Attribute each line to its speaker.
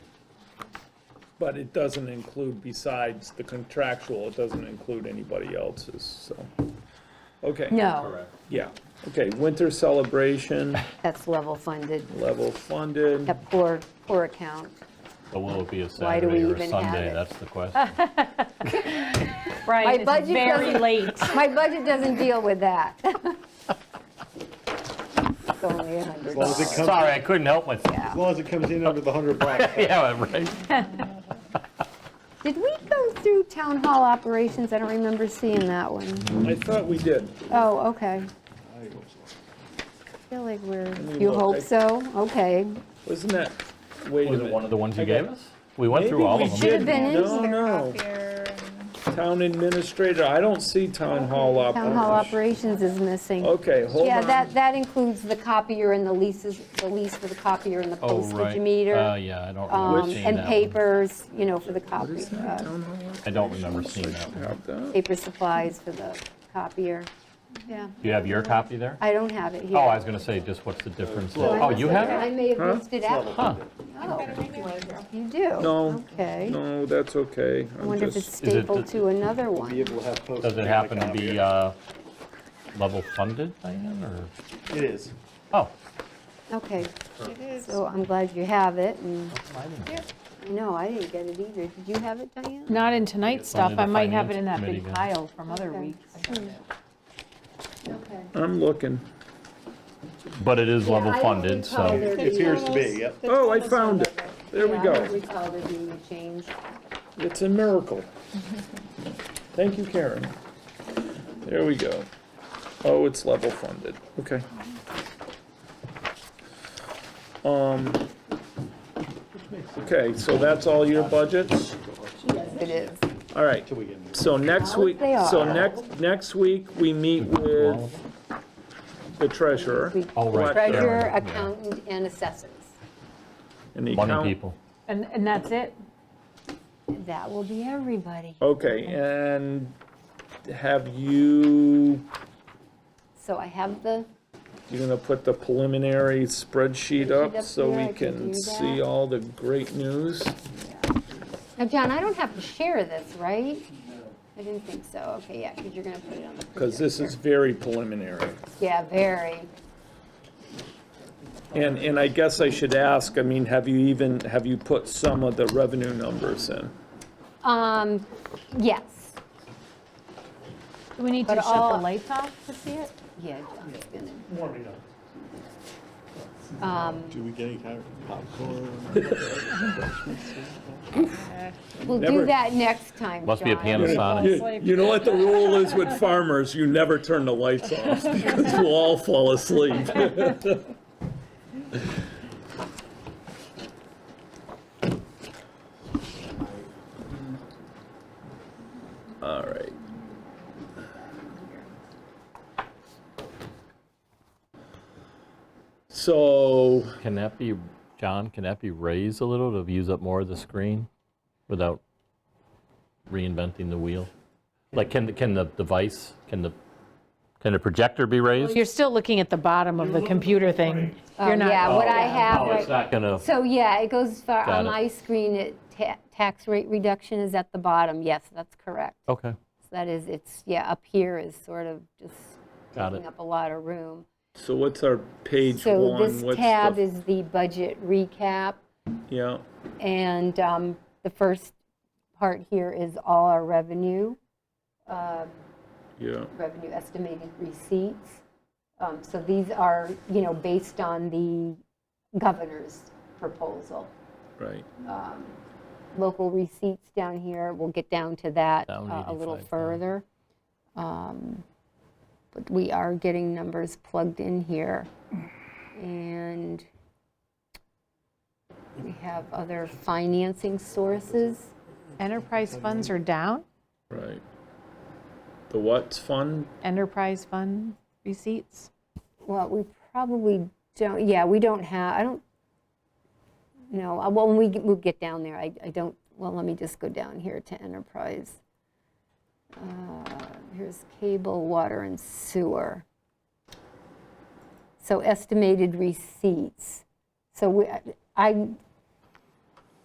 Speaker 1: But it doesn't include, besides the contractual, it doesn't include anybody else's, so. Okay.
Speaker 2: No,
Speaker 3: Correct.
Speaker 1: Yeah, okay, winter celebration,
Speaker 2: that's level funded.
Speaker 1: level funded.
Speaker 2: That poor, poor account.
Speaker 3: But will it be a
Speaker 2: Why do we
Speaker 3: Saturday or a
Speaker 2: even have
Speaker 3: Sunday?
Speaker 2: it?
Speaker 3: That's the question.
Speaker 2: My
Speaker 4: Right, it's
Speaker 2: budget
Speaker 4: very
Speaker 2: doesn't- Oh.
Speaker 4: late.
Speaker 2: My budget doesn't deal with that. It's only a hundred
Speaker 5: long as it
Speaker 2: dollars.
Speaker 5: comes-
Speaker 3: Sorry, I couldn't help myself.
Speaker 5: As long as it comes in under the 100 bucks.
Speaker 3: Yeah, right.
Speaker 2: Did we go through town hall operations? I don't remember seeing that one.
Speaker 1: I thought we did.
Speaker 2: Oh, okay. I feel like we're, you hope so? Okay.
Speaker 1: Wasn't that, wait a
Speaker 3: Was it
Speaker 1: minute.
Speaker 3: one of the ones you
Speaker 1: I got-
Speaker 3: gave us? We went
Speaker 1: Maybe
Speaker 3: through all
Speaker 1: we
Speaker 3: of them.
Speaker 2: Should have been in
Speaker 1: No, no, town administrator, I don't see town hall
Speaker 2: Town hall
Speaker 1: operations.
Speaker 2: operations is missing.
Speaker 1: Okay, Oh, hold on.
Speaker 2: Yeah, that, that includes the copier and the leases, the lease for the copier and the
Speaker 3: Oh,
Speaker 2: postage
Speaker 3: right.
Speaker 2: meter.
Speaker 3: Uh, yeah, I don't
Speaker 2: um,
Speaker 3: remember seeing that.
Speaker 2: And
Speaker 3: one.
Speaker 2: papers, you know, for the copy, uh,
Speaker 3: I don't remember seeing that one.
Speaker 1: Have that.
Speaker 2: paper supplies for the copier. Yeah,
Speaker 3: Do you have your copy there?
Speaker 2: I don't have it here.
Speaker 3: Oh, I was gonna say, just what's the difference?
Speaker 2: So I
Speaker 3: Oh,
Speaker 2: must
Speaker 3: you have
Speaker 2: I
Speaker 3: it?
Speaker 2: may have missed it out.
Speaker 3: Huh.
Speaker 2: Oh, you do?
Speaker 1: No,
Speaker 2: Okay.
Speaker 1: no, that's okay.
Speaker 2: I
Speaker 1: I'm
Speaker 2: wonder if
Speaker 1: just-
Speaker 2: it's
Speaker 3: Is it
Speaker 2: stapled
Speaker 3: the-
Speaker 2: to another one.
Speaker 5: Be able to have postage
Speaker 3: Does it
Speaker 5: and a
Speaker 3: happen to
Speaker 5: copy.
Speaker 3: be uh, level funded, Diane, or?
Speaker 5: It is.
Speaker 3: Oh,
Speaker 2: Okay,
Speaker 6: It is.
Speaker 2: so I'm glad you have it, and,
Speaker 3: I didn't.
Speaker 6: Yeah.
Speaker 2: no, I didn't get it either. Did you have it, Diane?
Speaker 4: Not in tonight's stuff,
Speaker 3: Only the
Speaker 4: I might have it
Speaker 3: finance
Speaker 4: in that
Speaker 3: committee
Speaker 4: big
Speaker 3: then.
Speaker 4: pile from other
Speaker 2: Okay.
Speaker 4: weeks.
Speaker 2: Okay.
Speaker 1: I'm looking.
Speaker 3: But it is
Speaker 2: Yeah,
Speaker 3: level
Speaker 2: I don't
Speaker 3: funded,
Speaker 2: recall
Speaker 3: so.
Speaker 2: there
Speaker 5: It
Speaker 2: being-
Speaker 5: appears to be, yep.
Speaker 1: Oh, I found it. There we
Speaker 2: Yeah, I don't
Speaker 1: go.
Speaker 2: recall there being a change.
Speaker 1: It's a miracle. Thank you, Karen. There we go. Oh, it's level funded, okay. Um, okay, so that's all your budgets?
Speaker 2: It is.
Speaker 1: All right,
Speaker 5: Till we get into it.
Speaker 1: so next week,
Speaker 2: They are.
Speaker 1: so next, next week, we meet with the treasurer.
Speaker 2: We-
Speaker 3: Oh, right there.
Speaker 2: Treasurer, accountant, and assessors.
Speaker 1: and the account-
Speaker 3: Money people.
Speaker 4: And, and that's it?
Speaker 2: That will be everybody.
Speaker 1: Okay, and have you,
Speaker 2: So I have the,
Speaker 1: you're gonna put the preliminary spreadsheet up
Speaker 2: up
Speaker 1: so
Speaker 2: there,
Speaker 1: we
Speaker 2: I can
Speaker 1: can
Speaker 2: do
Speaker 1: see
Speaker 2: that.
Speaker 1: all the great news?
Speaker 2: now, John, I don't have to share this, right? I didn't think so. Okay, yeah, because you're going to put it on the.
Speaker 1: Because this is very preliminary.
Speaker 2: Yeah, very.
Speaker 1: And, and I guess I should ask, I mean, have you even, have you put some of the revenue numbers in?
Speaker 2: Um, yes.
Speaker 4: Do we need
Speaker 2: But
Speaker 4: to shut
Speaker 2: all-
Speaker 4: the lights off to see it?
Speaker 2: Yeah, John's gonna,
Speaker 5: Warming up.
Speaker 2: um,
Speaker 5: Do we get any kind of popcorn?
Speaker 2: we'll
Speaker 1: Never-
Speaker 2: do that next time,
Speaker 3: Must be a
Speaker 2: John.
Speaker 3: Panasonic.
Speaker 1: You you know what the rule is with farmers, you never turn the lights off, because we'll all fall asleep. All right. So,
Speaker 3: Can that be, John, can that be raised a little to use up more of the screen without reinventing the wheel? Like, can, the can the device, can the, can the projector be raised?
Speaker 4: You're still looking at the bottom of the computer thing.
Speaker 2: Oh,
Speaker 4: You're not.
Speaker 2: Yeah, what I have,
Speaker 3: Oh, it's
Speaker 2: right-
Speaker 3: not gonna,
Speaker 2: so yeah, it goes for,
Speaker 3: Got
Speaker 2: on
Speaker 3: it.
Speaker 2: my screen, it, ta- tax rate reduction is at the bottom. Yes, that's correct.
Speaker 3: okay,
Speaker 2: That is, it's, yeah, up here is sort of just
Speaker 3: Got
Speaker 2: taking
Speaker 3: it.
Speaker 2: up a lot of room.
Speaker 1: so what's our page
Speaker 2: So
Speaker 1: one?
Speaker 2: this
Speaker 1: What's the-
Speaker 2: tab is the budget recap,
Speaker 1: Yeah,
Speaker 2: and um, the first part here is all our revenue, um,
Speaker 1: yeah,
Speaker 2: revenue estimated receipts. Um, So these are, you know, based on the governor's proposal.
Speaker 1: right.
Speaker 2: Local receipts down here, we'll get down to that
Speaker 3: Down
Speaker 2: uh, a little
Speaker 3: 85,000.
Speaker 2: further. Um, But we are getting numbers plugged in here. And we have other financing sources.
Speaker 4: Enterprise funds are down?
Speaker 1: Right. The what's fund?
Speaker 4: Enterprise fund receipts?
Speaker 2: Well, we probably don't, yeah, we don't have, I don't, no, uh, well, when we get- we'll get down there, I I don't, well, let me just go down here to enterprise. Uh, Here's cable, water, and sewer. So estimated receipts. So we, I